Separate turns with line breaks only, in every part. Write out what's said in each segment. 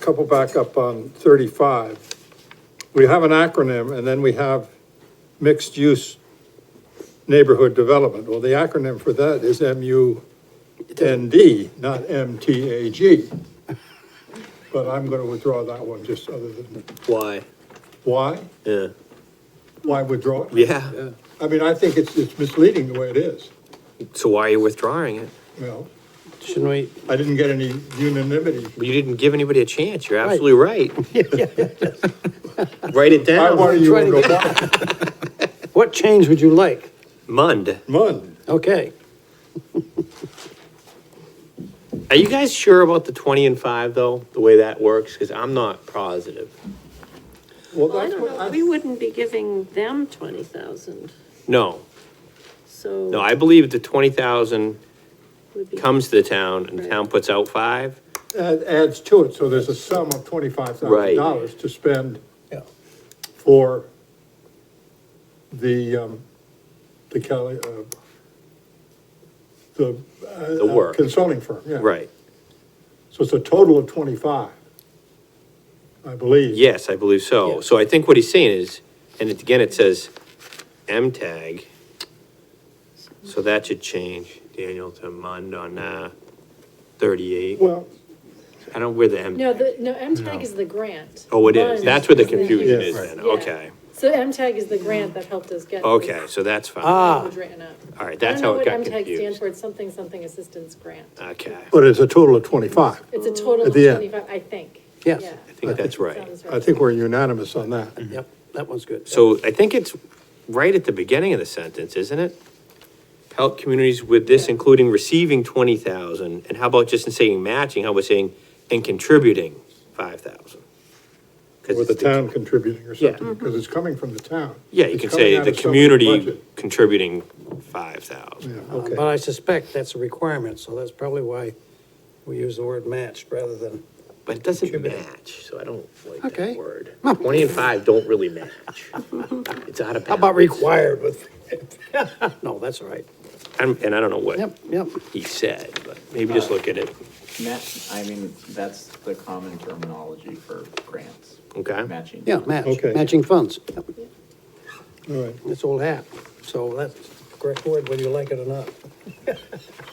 couple back up on thirty-five. We have an acronym and then we have mixed-use neighborhood development. Well, the acronym for that is M-U-N-D, not M-T-A-G. But I'm gonna withdraw that one, just other than,
Why?
why?
Yeah.
Why withdraw it?
Yeah.
I mean, I think it's, it's misleading the way it is,
So why are you withdrawing it?
Well,
Shouldn't we?
I didn't get any unanimity.
Well, You didn't give anybody a chance. You're absolutely right. Write it
I wanted
down.
you
Try
to
to
go back,
What change would you like?
Mund.
Mun,
Okay,
Are you guys sure about the twenty and five though? The way that works? Because I'm not positive.
well,
Well, I
that's
don't
what,
know,
I-
we wouldn't be giving them twenty thousand,
No,
so.
no, I believe the twenty thousand
would be-
comes to the town and the town puts out five.
add- adds to it, so there's a sum of twenty-five thousand dollars
Right.
to spend
yeah,
for the, um, the Cali, uh, the. uh,
The work.
Consulting firm, yeah.
Right.
So it's a total of twenty-five, I believe.
Yes, I believe so.
Yeah.
So I think what he's saying is, and it- again, it says M tag. So that should change, Daniel, to Mund on, uh, thirty-eight.
Well,
I don't, where the M,
No, the, no, MTAG is the grant.
oh, it is.
Mine
That's where the
is
confusion is
Yes.
then.
Yeah.
Okay.
So MTAG is the grant that helped us get.
Okay, so that's fine.
Uh,
Ah.
Language written up.
All right, that's how it
I
got
don't know what MTAG stands
confused.
for, it's something, something assistance grant.
Okay,
but it's a total of twenty-five.
It's a total
At
of
the end.
twenty-five, I think.
Yes.
Yeah.
I think that's right.
Sounds
I think we're unanimous on that.
Mm-hmm.
yep, that one's good. Uh,
So I think it's right at the beginning of the sentence, isn't it? Help communities with this, including receiving twenty thousand, and how about just in saying matching, how about saying, and contributing five thousand?
Or the town contributing or
Yeah.
something, because it's coming from the town.
Yeah, you
It's
can
coming
say
out
the
of someone's
community
budget.
contributing five
Yeah,
thousand.
Uh,
okay.
But I suspect that's a requirement, so that's probably why we use the word matched rather than,
But it doesn't match, so I don't like
Okay.
that word. Twenty and five don't really match. It's out of
how about
bounds.
required with? No, that's all right.
I'm- And I don't know
Yep,
what
yep.
he said, but maybe just look at it,
Match, I mean, that's the common terminology for grants,
okay?
matching.
Yeah, match,
Okay.
matching funds. Yep,
All right.
That's old hat. So that's the correct word, whether you like it or not.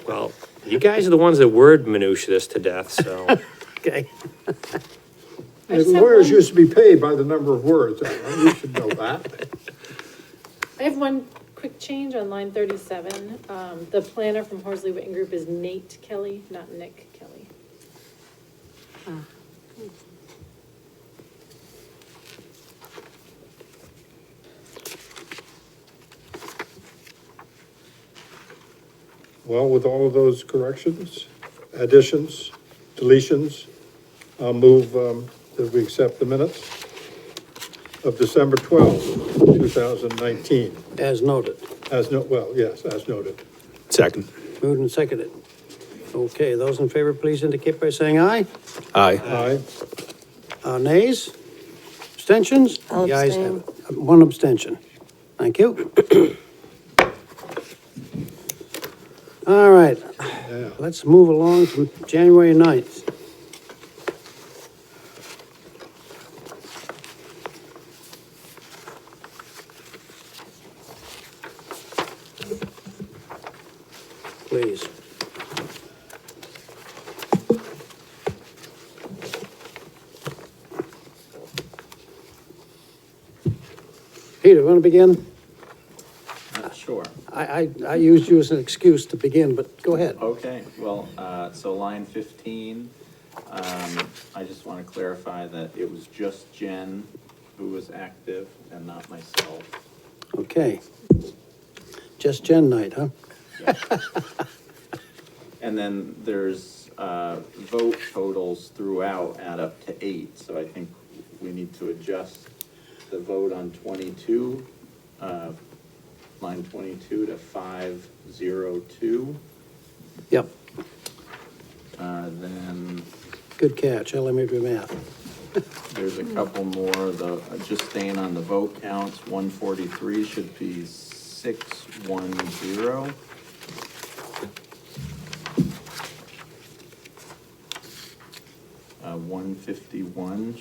Well, you guys are the ones that word minutia this to death, so.
Okay.
I just have
Lawyers
one-
used to be paid by the number of words, Alan, you should know that.
I have one quick change on line thirty-seven. Um, the planner from Horsley Witten Group is Nate Kelly, not Nick Kelly.
Well, with all of those corrections, additions, deletions, I'll move um, that we accept the minutes of December 12, 2019,
As noted,
as no, well, yes, as noted.
Second.
moved and seconded. Okay, those in favor, please indicate by saying aye.
Aye.
Aye,
Uh, nays? Abstentions?
I'll
The ayes have it. One abstention. Thank you. All right,
yeah.
let's move along from January 9th. Please. Peter, want to begin?
Uh, Sure,
I, I, I used you as an excuse to begin, but go ahead.
okay, well, uh, so line fifteen, um, I just want to clarify that it was just Jen who was active and not myself.
Okay. Just Jen night, huh?
Yeah. And then there's, uh, vote totals throughout add up to eight, so I think we need to adjust the vote on twenty-two, uh, line twenty-two to five zero two.
Yep,
Uh, then
good catch, I made your math.
there's a couple more, the, uh, just staying on the vote counts, one forty-three should be six one zero. Uh, one fifty-one